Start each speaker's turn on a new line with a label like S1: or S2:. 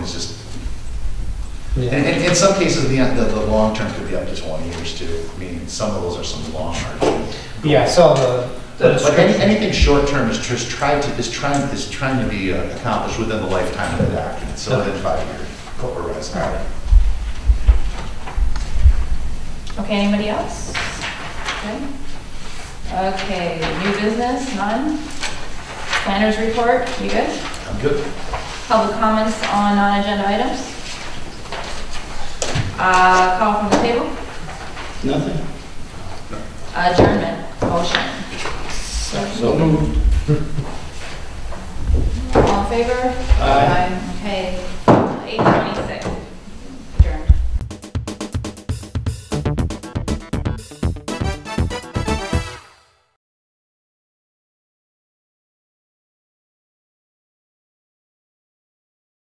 S1: And, and in some cases, the, the, the long term could be up to twenty years too. I mean, some of those are some long hard.
S2: Yeah, I saw the.
S1: But any, anything short term is just tried to, is trying, is trying to be uh, accomplished within the lifetime of the document, so within five years. All right.
S3: Okay, anybody else? Good. Okay, new business, none? Planners report, you good?
S1: I'm good.
S3: Public comments on non-agenda items? Uh, call from the table?
S4: Nothing.
S3: Adjournment, motion.
S4: So moved.
S3: All in favor? Aye. Okay,